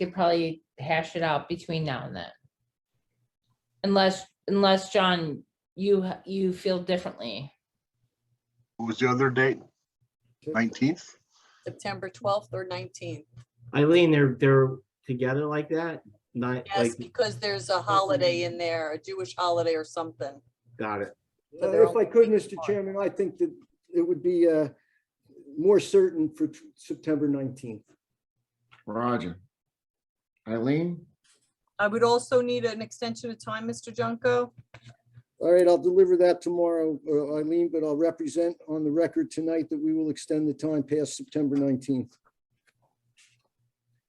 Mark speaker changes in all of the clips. Speaker 1: could probably hash it out between now and then. Unless, unless, John, you, ha- you feel differently.
Speaker 2: What was the other date? Nineteenth?
Speaker 3: September twelfth or nineteenth.
Speaker 4: Eileen, they're, they're together like that? Not
Speaker 3: Yes,
Speaker 4: like,
Speaker 3: because there's a holiday in there, a Jewish holiday or something.
Speaker 4: got it.
Speaker 3: So
Speaker 5: Uh,
Speaker 3: they're
Speaker 5: If I
Speaker 3: only
Speaker 5: could,
Speaker 3: weeks
Speaker 5: Mr.
Speaker 3: apart.
Speaker 5: Chairman, I think that it would be uh, more certain for t- September 19th.
Speaker 6: Roger. Eileen,
Speaker 3: I would also need an extension of time, Mr. Junko.
Speaker 5: All right, I'll deliver that tomorrow, uh, Eileen, but I'll represent on the record tonight that we will extend the time past September 19th.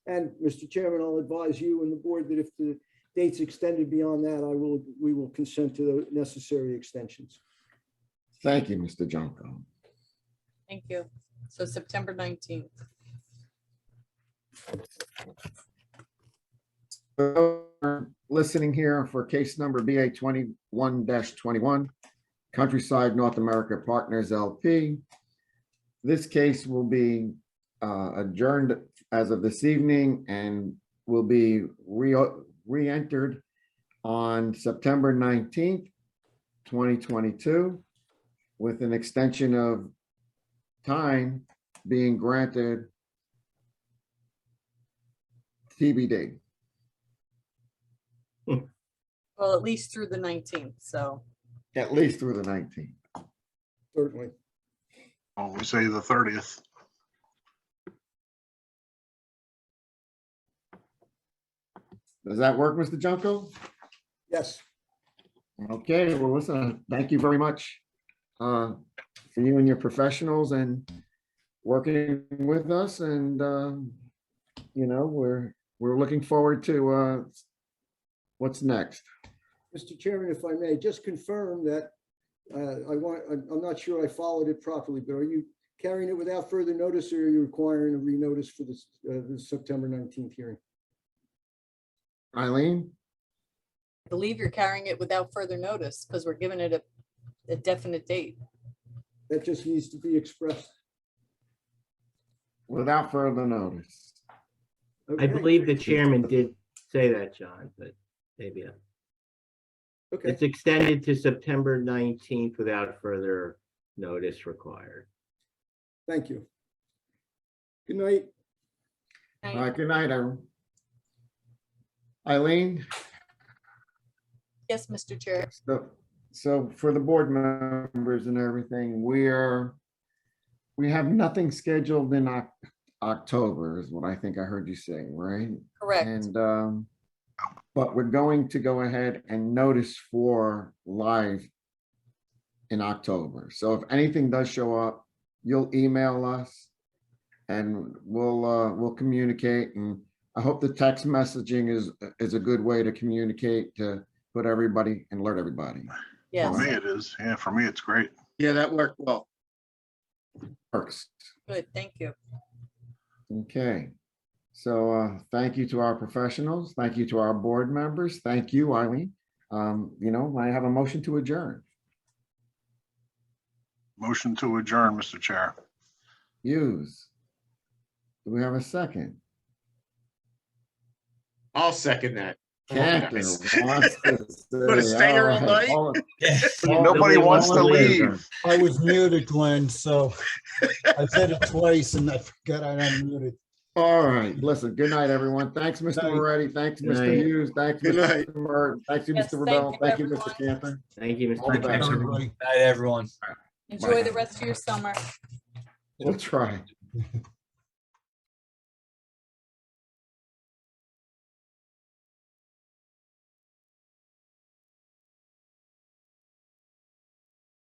Speaker 5: And, Mr. Chairman, I'll advise you and the board that if the date's extended beyond that, I will, we will consent to the necessary extensions.
Speaker 6: thank you, Mr. Junko.
Speaker 3: Thank you. So September nineteenth.
Speaker 6: So, we're Listening here for case number BA twenty-one twenty-one, Countryside North America Partners LP. This case will be uh, adjourned as of this evening and will be re- re-entered on September nineteenth, twenty twenty-two, with an extension of time being granted TBD.
Speaker 3: Well, at least through the nineteenth, so.
Speaker 6: At least through the nineteenth.
Speaker 5: Certainly.
Speaker 2: Oh, we say the thirtieth.
Speaker 6: Does that work, Mr. Junko?
Speaker 5: Yes.
Speaker 6: Okay, well, listen, thank you very much uh, for you and your professionals and working with us and, um, you know, we're, we're looking forward to uh, what's next.
Speaker 5: Mr. Chairman, if I may, just confirm that, uh, I want, I'm I'm not sure I followed it properly, but are you carrying it without further notice or are you requiring a renotice for this, uh, the September 19th hearing?
Speaker 6: Eileen,
Speaker 3: I believe you're carrying it without further notice because we're giving it a, a definite date.
Speaker 5: That just needs to be expressed.
Speaker 6: without further notice.
Speaker 4: I
Speaker 5: Okay,
Speaker 4: believe the chairman did say that, John, but maybe. I'm-
Speaker 5: Okay,
Speaker 4: It's extended to September nineteenth without further notice required.
Speaker 5: thank you. Good night.
Speaker 6: All right, good night, everyone. Eileen?
Speaker 3: Yes, Mr. Chair.
Speaker 6: So, so for the board members and everything, we're, we have nothing scheduled in Oc- October is what I think I heard you say, right?
Speaker 3: Correct.
Speaker 6: And, um, but we're going to go ahead and notice for live in October. So if anything does show up, you'll email us and we'll, uh, we'll communicate. And I hope the text messaging is, is a good way to communicate to put everybody and alert everybody.
Speaker 2: For
Speaker 3: Yes.
Speaker 2: me, it is. Yeah, for me, it's great.
Speaker 7: Yeah, that worked well.
Speaker 6: Works.
Speaker 3: Good. Thank you.
Speaker 6: Okay. So uh, thank you to our professionals. Thank you to our board members. Thank you, Eileen. Um, You know, I have a motion to adjourn.
Speaker 2: Motion to adjourn, Mr. Chair.
Speaker 6: Hughes. Do we have a second?
Speaker 7: I'll second that.
Speaker 6: Cantor
Speaker 7: Nice.
Speaker 6: wants to
Speaker 7: Gonna
Speaker 6: say,
Speaker 7: stay here all
Speaker 6: right,
Speaker 7: night?
Speaker 6: all-
Speaker 2: Nobody wants to
Speaker 6: wanna
Speaker 2: leave.
Speaker 8: I was muted, Glenn, so I said it twice and I forgot I unmuted.
Speaker 6: All right, listen, good night, everyone. Thanks, Mr.
Speaker 8: Night.
Speaker 6: Moretti. Thanks,
Speaker 4: Good
Speaker 6: Mr.
Speaker 4: night.
Speaker 6: Hughes. Thanks,
Speaker 7: Good
Speaker 6: Mr.
Speaker 7: night.
Speaker 6: Martin. Thanks you,
Speaker 3: Yes,
Speaker 6: Mr.
Speaker 3: thank
Speaker 6: Rebel.
Speaker 3: you,
Speaker 6: Thank you, Mr.
Speaker 3: everyone.
Speaker 6: Cantor.
Speaker 4: Thank you,
Speaker 6: All the
Speaker 4: Mr.
Speaker 6: best.
Speaker 4: Chairman.
Speaker 8: Everybody.
Speaker 9: Night, everyone.
Speaker 3: Enjoy the rest of your summer.
Speaker 6: We'll try.